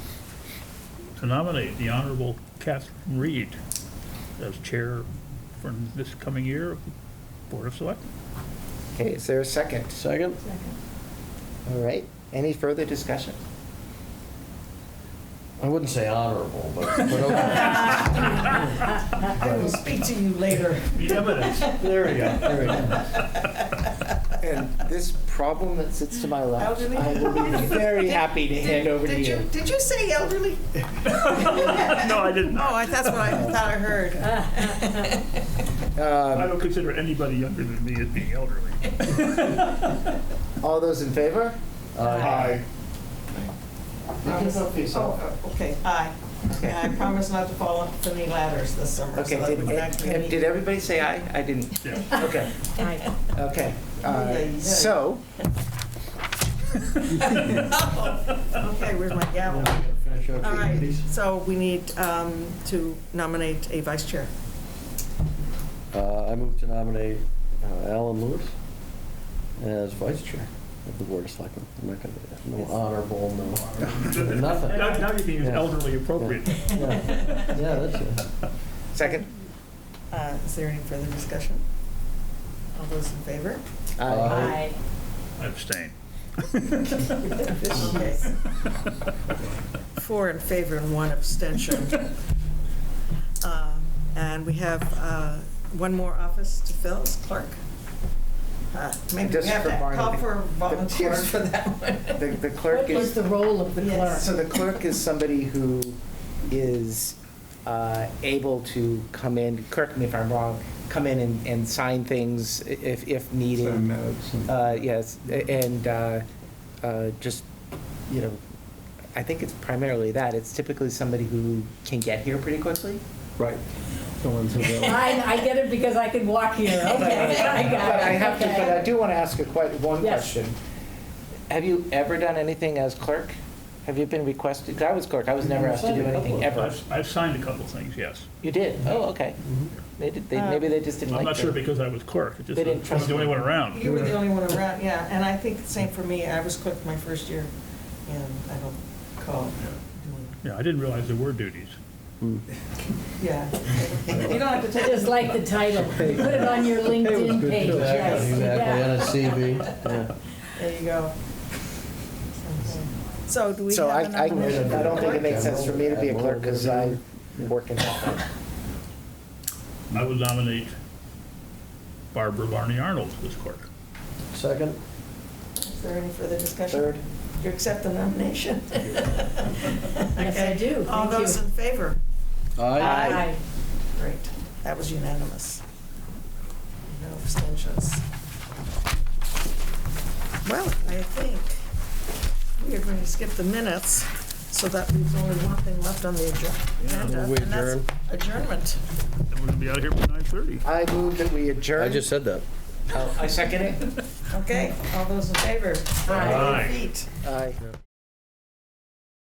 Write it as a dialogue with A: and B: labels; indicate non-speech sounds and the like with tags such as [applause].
A: to nominate the Honorable Catherine Reed as chair for this coming year of Board of Selectmen.
B: Okay, is there a second?
C: Second?
B: All right, any further discussion?
C: I wouldn't say honorable, but,
B: [laughs]
C: but okay.
D: I will speak to you later.
A: The evidence.
C: There we go, there we go.
B: And this problem that sits to my left,
D: Elderly?
B: I will be very happy to hand over to
D: Did
B: you.
D: Did you say elderly? [laughs]
A: No, I didn't.
D: Oh, I- that's what I thought
B: [laughs]
D: I heard.
A: I
B: Um,
A: don't consider anybody younger than me as being elderly.
B: All those in favor?
C: Aye.
B: You can vote for yourself.
D: Oh, Okay, aye. Okay, I promise not to fall off any ladders this summer. so
B: Okay,
D: that
B: did,
D: we can actually
B: eh,
D: meet.
B: did everybody say aye? I didn't,
A: Yeah.
B: okay,
D: Aye.
B: okay.
D: Yeah, you
B: Uh,
D: did.
B: So,
D: [laughs] Okay, where's my gavel?
C: Finish out
D: All
C: your
D: right,
C: committees.
D: so we need um, to nominate a vice chair.
C: Uh, I move to nominate uh, Alan Lewis as vice chair of the Board of Selectmen. I'm not gonna, no honorable, no, nothing.
A: Now, now you can use
C: Yeah.
A: elderly appropriately.
C: Yeah, Yeah, that's it.
B: second?
D: Uh, Is there any further discussion? All those in favor?
B: Aye.
C: Aye.
A: I Abstain. [laughs]
D: Okay. Four in favor and one abstention. Uh, And we have uh, one more office to fill as clerk. Uh, Maybe we
B: Just
D: have
B: for
D: to call
B: Barnaby.
D: for volunteers
B: Yes.
D: for that one. [laughs]
B: The the clerk
E: What was
B: is,
E: the role of the
D: Yes.
E: clerk?
B: so the clerk is somebody who is uh, able to come in, correct me if I'm wrong, come in and, and sign things i- if, if needed. Uh, Yes, a- and uh, uh, just, you know, I think it's primarily that. It's typically somebody who can get here pretty quickly.
C: Right. The ones who will.
E: I, I get it because [laughs] I can
B: [laughs]
E: walk here, okay, I
B: But
E: got it.
B: I have to, but I do want to ask a quite, one
E: Yes.
B: question. Have you ever done anything as clerk? Have you been requested? 'cause I was clerk, I was never asked to do anything, ever.
A: I've, I've signed a couple things, yes.
B: You did? Oh, okay.
C: Mm-hmm.
B: They did, they, maybe they just didn't like
A: I'm
B: you.
A: not sure because I was clerk, it just,
B: They didn't
A: I was
B: trust
A: the only
B: me.
A: one around.
D: You were the only one around, yeah, and I think the same for me. I was clerk my first year, and I don't recall doing,
A: Yeah, I didn't realize there were duties.
C: Mm.
D: yeah. You don't have to take.
E: Just like the title, put it on your LinkedIn page, yes,
C: Exactly,
E: yeah.
C: exactly, on a CV, yeah.
D: There you go. So do we
B: So I,
D: have a
B: I, I
D: nomination?
B: don't think it makes sense for me to be a clerk because I work in.
A: I would nominate Barbara Barney Arnold as clerk.
C: Second?
D: Is there any further discussion?
B: Third?
D: You accept the nomination?
E: [laughs] Yes, I do. Thank
D: All those
E: you.
D: in favor?
C: Aye.
E: Aye.
D: Great, that was unanimous. No abstentions. Well, I think we are going to skip the minutes, so that leaves only one thing left on the agenda.
C: we
D: and that's
C: adjourn.
D: Adjournment.
A: And we're gonna be out of here by nine thirty.
B: I move that we adjourn.
C: I just said that.
B: I second it.
D: Okay, all those in favor?
A: Aye.
D: Feet.
B: Aye.